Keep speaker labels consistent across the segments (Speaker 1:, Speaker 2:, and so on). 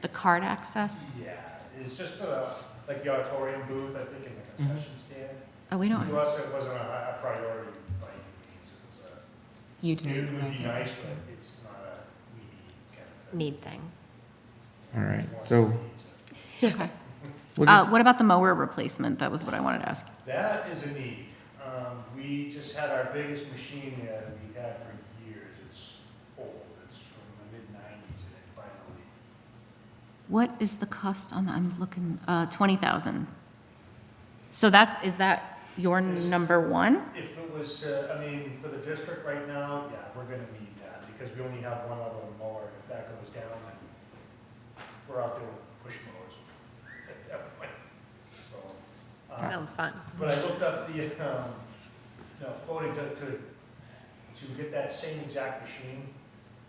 Speaker 1: the card access?
Speaker 2: Yeah, it's just for the, like the auditorium booth, I think, in the
Speaker 1: Mm-hmm.
Speaker 2: concession stand.
Speaker 1: Oh, we don't,
Speaker 2: To us, it wasn't a high- a priority by any
Speaker 1: you
Speaker 2: means. It was a- It
Speaker 1: do.
Speaker 2: would be nice, but it's not a we need kind of thing.
Speaker 3: need thing.
Speaker 4: All right, so-
Speaker 1: Okay.
Speaker 4: We'll
Speaker 1: Uh,
Speaker 4: give-
Speaker 1: what about the mower replacement? That was what I wanted to ask.
Speaker 2: That is a need. Um, we just had our biggest machine that we've had for years. It's old. It's from the mid nineties and it finally,
Speaker 1: What is the cost on, the- I'm looking, uh, twenty thousand? So that's, is that your number one?
Speaker 2: if it was, uh, I mean, for the district right now, yeah, we're gonna need that because we only have one other mower. If that goes down, then we're out there with push mowers at that point. So, um,
Speaker 3: Sounds fun.
Speaker 2: But I looked up the, um, no, quoting to, to, to get that same exact machine,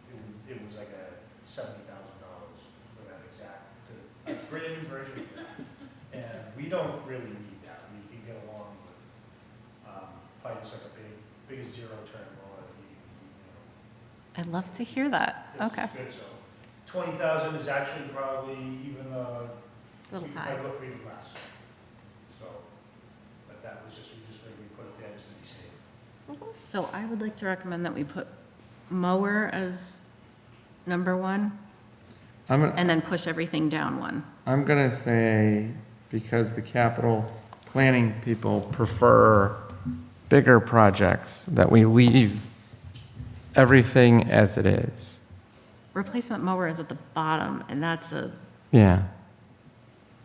Speaker 2: it, wa- it was like a seventy thousand dollars for that exact, to- a brand new version of that. And we don't really need that, we can get along with, um, probably just like a big, big zero turn mower that you, you know,
Speaker 1: I'd love to hear that.
Speaker 2: that's
Speaker 1: Okay.
Speaker 2: good, so. Twenty thousand is actually probably even, uh,
Speaker 3: Little
Speaker 2: we
Speaker 3: high.
Speaker 2: probably look for even less. So, but that was just, we just figured we put it there just to be safe.
Speaker 1: So I would like to recommend that we put mower as number one
Speaker 4: I'm, gonna-
Speaker 1: and then push everything down one.
Speaker 4: I'm gonna say, because the capital planning people prefer bigger projects, that we leave everything as it is.
Speaker 1: Replacement mower is at the bottom and that's a,
Speaker 4: Yeah.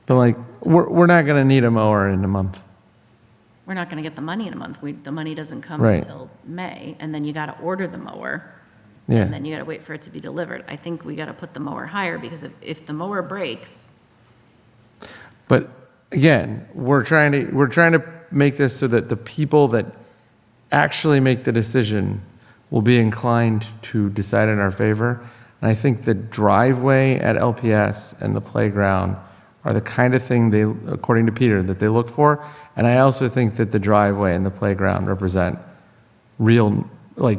Speaker 4: But like, we're, we're not gonna need a mower in a month.
Speaker 1: we're not going to get the money in a month. We, the money doesn't come
Speaker 4: Right.
Speaker 1: until May and then you got to order the mower. And
Speaker 4: Yeah,
Speaker 1: then you got to wait for it to be delivered. I think we got to put the mower higher because if, if the mower breaks,
Speaker 4: but again, we're trying to, we're trying to make this so that the people that actually make the decision will be inclined to decide in our favor. And I think the driveway at LPS and the playground are the kind of thing they, according to Peter, that they look for. And I also think that the driveway and the playground represent real, like,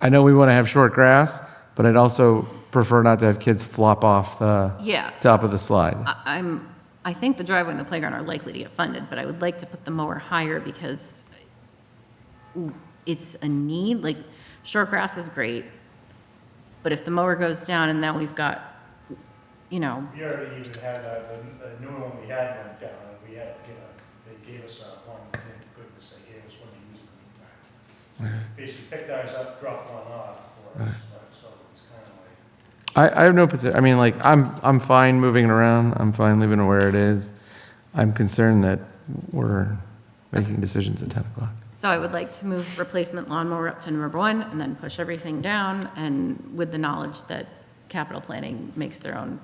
Speaker 4: I know we want to have short grass, but I'd also prefer not to have kids flop off the
Speaker 1: Yeah.
Speaker 4: top of the slide.
Speaker 1: I, I'm, I think the driveway and the playground are likely to get funded, but I would like to put the mower higher because it's a need, like, short grass is great, but if the mower goes down and now we've got, you know,
Speaker 2: We already even had, uh, the, the new one we had went down, and we had, to get a they gave us, uh, one, thank goodness, they gave us one to use in the meantime. Basically picked ours up, dropped one off for us, but, so it's kind of like,
Speaker 4: I, I have no position. I mean, like, I'm, I'm fine moving it around. I'm fine leaving it where it is. I'm concerned that we're making decisions at 10 o'clock.
Speaker 1: so I would like to move replacement lawnmower up to number one and then push everything down and with the knowledge that capital planning makes their own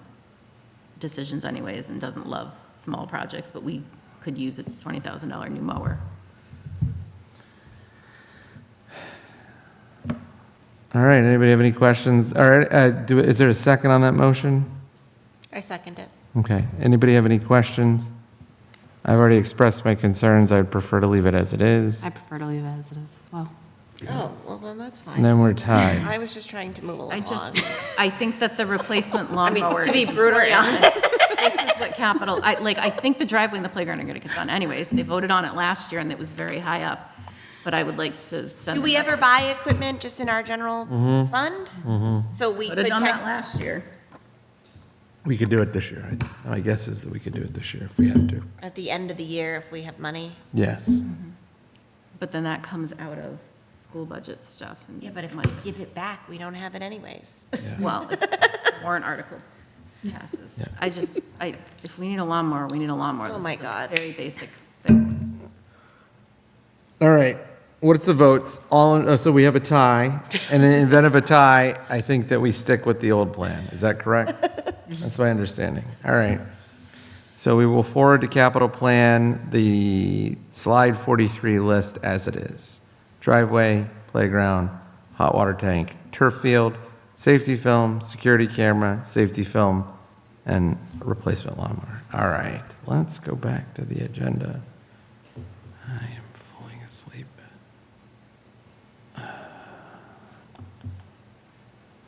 Speaker 1: decisions anyways and doesn't love small projects, but we could use a twenty thousand dollar new mower.
Speaker 4: All right, anybody have any questions? All right, uh, do, is there a second on that motion?
Speaker 3: I second it.
Speaker 4: Okay, anybody have any questions? I've already expressed my concerns. I'd prefer to leave it as it is.
Speaker 5: I prefer to leave it as it is as well.
Speaker 3: Oh, well, then that's
Speaker 4: And
Speaker 3: fine.
Speaker 4: then we're tied.
Speaker 3: I was just trying to move
Speaker 1: I
Speaker 3: along.
Speaker 1: just, I think that the replacement
Speaker 3: I mean,
Speaker 1: lawnmower.
Speaker 3: to be
Speaker 1: is
Speaker 3: brutally
Speaker 1: important.
Speaker 3: honest,
Speaker 1: This is what capital, I, like, I think the driveway and the playground are gonna get done anyways. They voted on it last year and it was very high up. But I would like to send.
Speaker 3: do we
Speaker 1: a
Speaker 3: ever
Speaker 1: message.
Speaker 3: buy equipment just in our general fund? So we
Speaker 1: Voted
Speaker 3: could,
Speaker 1: on that
Speaker 3: tech-
Speaker 1: last year.
Speaker 6: We could do it this year. I- My guess is that we could do it this year if we have to.
Speaker 3: at the end of the year, if we have money.
Speaker 6: Yes.
Speaker 1: But then that comes out of school budget stuff. and
Speaker 3: Yeah, but if we
Speaker 1: money.
Speaker 3: give it back, we don't have it anyways.
Speaker 1: Well, if the warrant article passes. I just, I, if we need a lawnmower, we need a lawnmower.
Speaker 3: Oh
Speaker 1: This
Speaker 3: my
Speaker 1: is a
Speaker 3: God.
Speaker 1: Very basic thing.
Speaker 4: All right, what's the votes? All, in- oh, so we have a tie. And in the event of a tie, I think that we stick with the old plan. Is that correct? That's my understanding. All right. So we will forward to capital plan the slide 43 list as it is. Driveway, playground, hot water tank, turf field, safety film, security camera, safety film, and replacement lawnmower. All right, let's go back to the agenda.